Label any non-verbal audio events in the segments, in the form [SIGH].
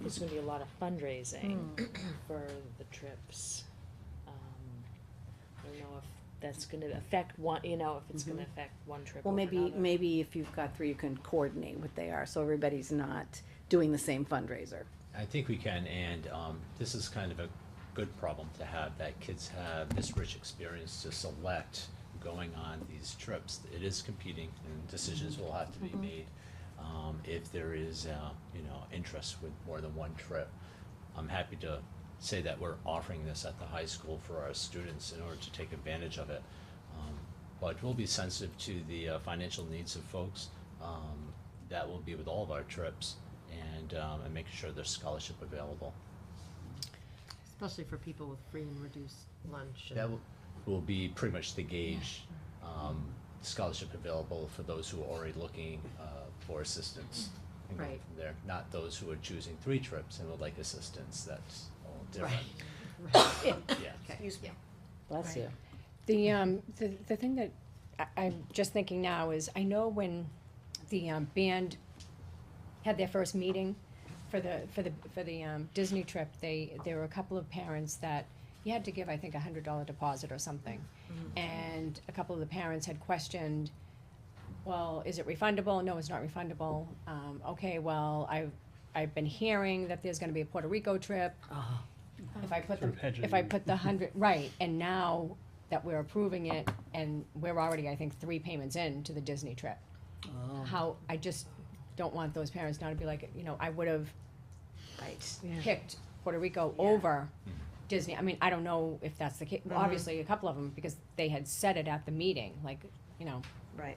there's gonna be a lot of fundraising Hmm. [CLEARS THROAT] for the trips. Um, I don't know if that's gonna affect one, you know, if it's gonna affect one trip Mm-hmm. Well, over maybe, another. maybe if you've got three, you can coordinate what they are, so everybody's not doing the same fundraiser. I think we can, and um, this is kind of a good problem to have, that kids have this rich experience to select going on these trips. It is competing, and decisions will have to be made. um, If there is, uh, you know, interest with more than one trip. I'm happy to say that we're offering this at the high school for our students in order to take advantage of it. Um, But we'll be sensitive to the uh, financial needs of folks. Um, That will be with all of our trips and, um, and making sure there's scholarship available. Especially for people with free and reduced lunch. That will, will be pretty much the gauge, um, scholarship available for those who are already looking, uh, for assistance. and going Right. from There, not those who are choosing three trips and would like assistance, that's all different, [LAUGHS] Right. yeah. Excuse me. Bless you. The, um, the, the thing that I, I'm just thinking now is, I know when the, um, band had their first meeting for the, for the, for the, um, Disney trip, they, there were a couple of parents that, you had to give, I think, a hundred dollar deposit or something. And a couple of the parents had questioned, well, is it refundable? No, it's not refundable. Um, okay, well, I've, I've been hearing that there's gonna be a Puerto Rico trip. If I put the, if I put the hundred, right, and now that we're approving it, and we're already, I think, three payments in to the Disney trip. How, I just don't want those parents now to be like, you know, I would've Right. picked Puerto Rico Yeah. over Disney, I mean, I don't know if that's the case, obviously, a couple of them, because they had said it at the meeting, like, you know, Right.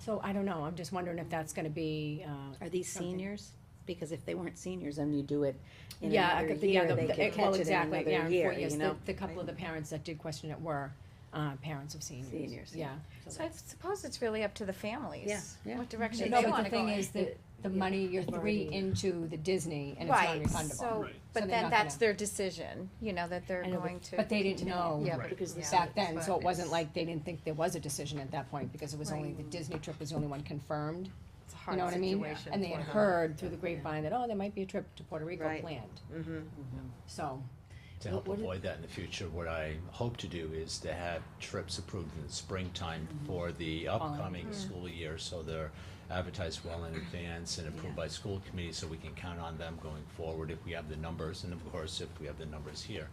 so I don't know, I'm just wondering if that's gonna be, uh, Are these Something. seniors? Because if they weren't seniors, then you do it in Yeah, I another could think- yeah, year, the, they the- could well, catch it in exactly, yeah, another and year, for- yes, you the- know? the couple of the parents that did question it were, uh, parents of seniors. Seniors, yeah. Yeah. So I suppose it's really up to the families. Yeah, yeah. What direction No, they but wanna the go thing in. is that the money, you're three already- into the Disney and it's not Right, refundable. so, Right. So but they're then not that's gonna- their decision, you know, that they're I know, but- going to. But they didn't continue. know Yeah, but- Because this- yeah. back then, so it But wasn't it's- like they didn't think there was a decision at that point because it was only, Right. the Disney trip was the only one confirmed. It's a You hard know what I mean? situation And they had for them. heard through the grapevine that, oh, there might be a trip to Puerto Rico Right. planned. Mm-hmm. So, To help What- what avoid that in the future, what I hope to do is to have trips approved in the springtime Mm-hmm. for the upcoming school year, so they're advertised well in advance and approved by school committee, so we can count on them going forward if we have the numbers, and of course, if we have the numbers here.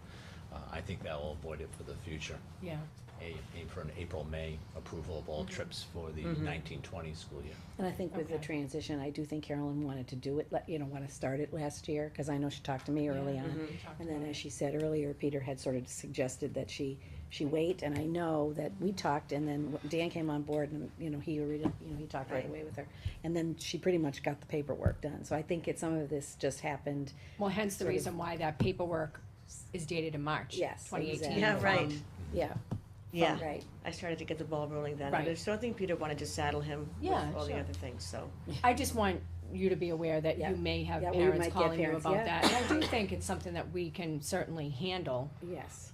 Uh, I think that will avoid it for the future. yeah. A, aim for an April, May approval of Mm-hmm. all trips for the nineteen twenty school year. And I think with the Okay. transition, I do think Carolyn wanted to do it, let- you know, wanna start it last year, cause I know she talked to me early mm-hmm. on. Mm-hmm. And then as she said earlier, Peter had sort of suggested that she, she wait, and I know that we talked, and then w- Dan came on board and, you know, he, already- you know, he talked right Right. away with her. And then she pretty much got the paperwork done, so I think it, some of this just happened, Well, hence the Sort of- reason why that paperwork is dated in March. Yes, Twenty eighteen. Um, exactly. Yeah, right. yeah, Yeah, right. I started to get the ball rolling then. Right. I just don't think Peter wanted to saddle him with Yeah, all the sure. other things, so. I just want you to be aware that Yeah. you may have Yeah, we might parents get calling you parents, about yeah. that. And I do think it's something that we can certainly handle, Yes.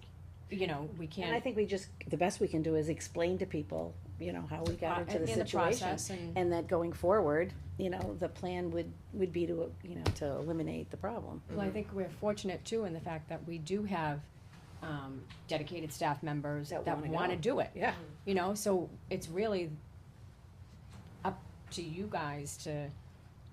you know, we And I can't. think we just, the best we can do is explain to people, you know, how we got into the Uh, in the situation. process and, And that going forward, you know, the plan would, would be to, you know, to eliminate the problem. well, I think we're fortunate too in the fact that we do have, um, dedicated staff members That that wanna wanna go. do it. Yeah. You know, so it's really up to you guys to,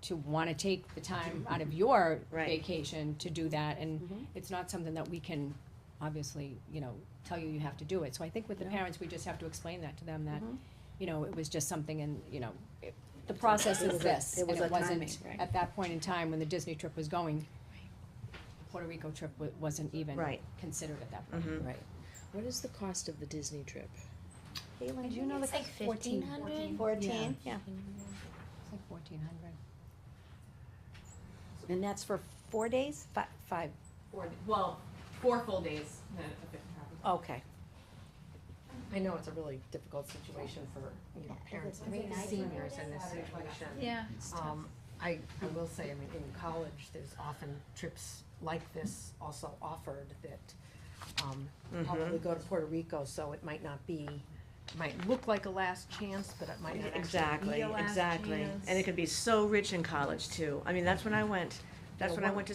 to wanna take the time Mm-hmm. out of your Right. vacation to do that, Mhm. and it's not something that we can, obviously, you know, tell you you have to do it, so I think with the No. parents, we just have to explain that to them, that, Mhm. you know, it was just something and, you know, it- the process It is was a- this, it and was a it wasn't, timing, right. at that point in time, when the Disney trip was going, the Puerto Rico trip wa- wasn't even Right. considered at that point. mhm. Right. What is the cost of the Disney trip? Caitlin, you know it's the like fourteen- 1,400? Fourteen? Yeah. It's like fourteen hundred. And that's for four days, five, five, Four, well, four full days. no, a bit more. okay. I know it's a really difficult situation for, you know, parents and seniors in this situation. Yeah. Um, I, I will say, I mean, in college, there's often trips like this also offered that, um, probably go to Puerto Rico, so it might not be, might look like a last chance, but it might not actually be Exactly, a last chance. exactly. And it could be so rich in college too. I mean, that's when I went, that's Yeah, when I one- went to